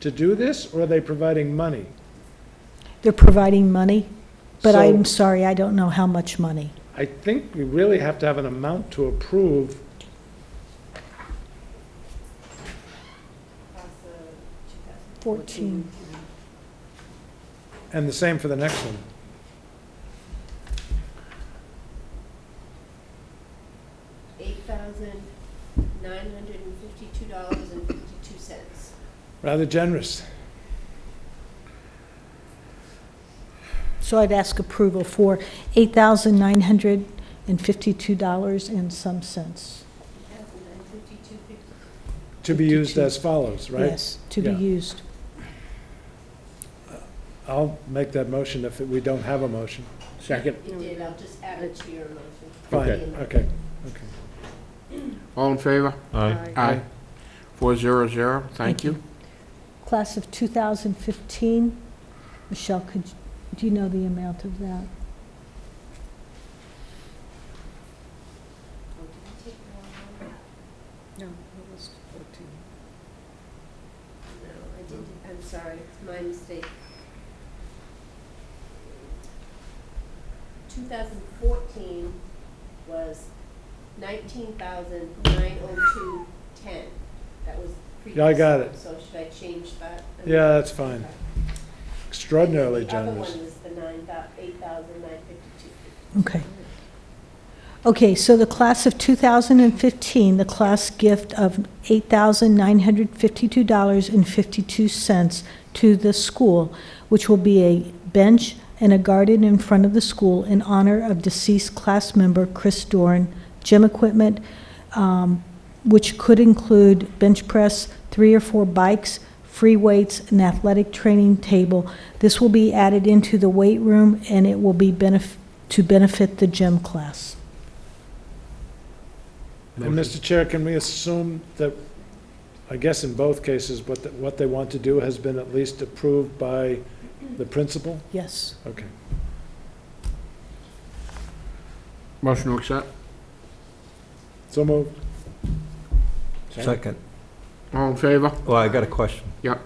to do this, or are they providing money? They're providing money, but So- I'm sorry, I don't know how much money. I think we really have to have an amount to approve. Fourteen. And the same for the next one. eight thousand nine hundred and fifty-two dollars and fifty-two cents. Rather generous. So I'd ask approval for eight thousand nine hundred and fifty-two dollars and some cents. To be used 52. as follows, right? Yes, to be Yeah. used. I'll make that motion if we don't have a motion. Second. You did, I'll just add it to your motion. Fine, Okay. okay, okay. All in favor? Aye. Aye. Four zero zero, thank Thank you. you. Class of two thousand fifteen, Michelle, could, do you know the amount of that? Oh, did I take the wrong number? No, it was 14. No, I didn't, I'm sorry, it's my mistake. Two thousand fourteen was nineteen thousand nine oh two ten. That was previous. Yeah, I got one, it. So should I change that? Yeah, that's fine. Extraordinarily The generous. other one was the nine thou, eight thousand nine fifty-two. Okay. Okay, so the class of 2015, the class gift of $8,952.52 to the school, which will be a bench and a garden in front of the school in honor of deceased class member Chris Dorn, gym equipment, um, which could include bench press, three or four bikes, free weights, an athletic training table. This will be added into the weight room, and it will be benef, to benefit the gym class. And Mr. Chair, can we assume that, I guess in both cases, what, the- what they want to do has been at least approved by the principal? Yes. Okay. Motion to accept. So moved. Second. All in favor? Well, I got a question. Yep.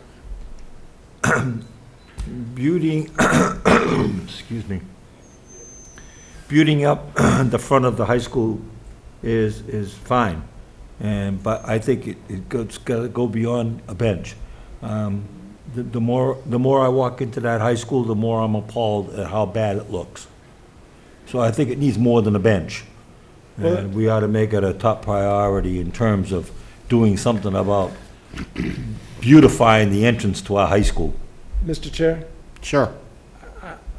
Beauty, excuse me. Beauting up the front of the high school is, is fine. And, but I think it, it goes, gotta go beyond a bench. Um, The, the more, the more I walk into that high school, the more I'm appalled at how bad it looks. So I think it needs more than a bench. Well- And we ought to make it a top priority in terms of doing something about beautifying the entrance to our high school. Mr. Chair? Sure.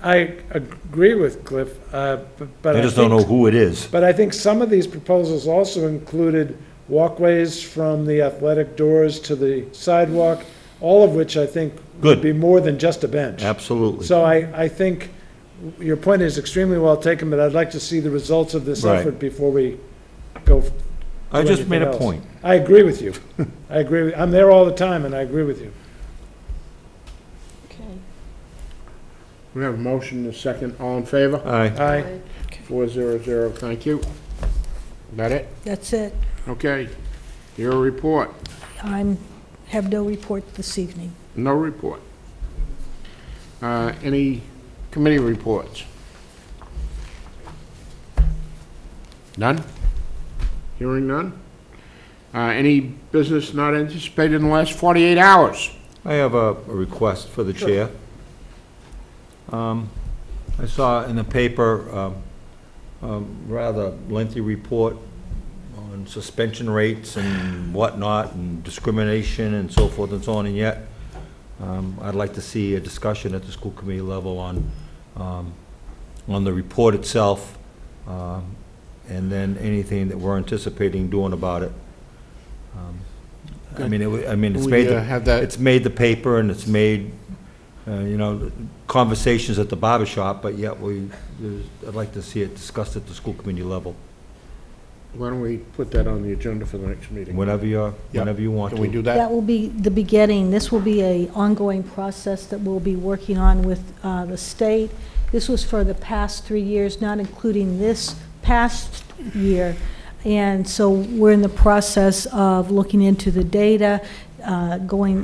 I agree with Cliff, uh, bu- but I I just don't know think, who it is. but I think some of these proposals also included walkways from the athletic doors to the sidewalk, all of which I think would Good. be more than just a bench. Absolutely. So I, I think your point is extremely well taken, but I'd like to see the results of this Right. effort before we go. f- I do just anything made a else. point. I agree with you. I agree, with- I'm there all the time, and I agree with you. Okay. We have a motion and a second. All in favor? Aye. Aye. Four zero zero, thank you. That it? That's it. Okay. Your report. I'm, have no report this evening. No report. Uh, Any committee reports? None? Hearing none? Uh, Any business not anticipated in the last 48 hours? I have a a request for the chair. Um, I saw in the paper um, a rather lengthy report on suspension rates and whatnot, and discrimination and so forth and so on, and yet um, I'd like to see a discussion at the school committee level on, um, on the report itself, um, and then anything that we're anticipating doing about it. Um, I mean, it wa- I mean, it's We, made the uh, Have that, it's made the paper and it's made, uh, you know, conversations at the barber shop, but yet we, there's- I'd like to see it discussed at the school committee level, why don't we put that on the agenda for the next meeting? whenever you're, Yeah. whenever you want Can we to. do That that? will be the beginning. This will be a ongoing process that we'll be working on with uh, the state. This was for the past three years, not including this past year. And so we're in the process of looking into the data, uh, going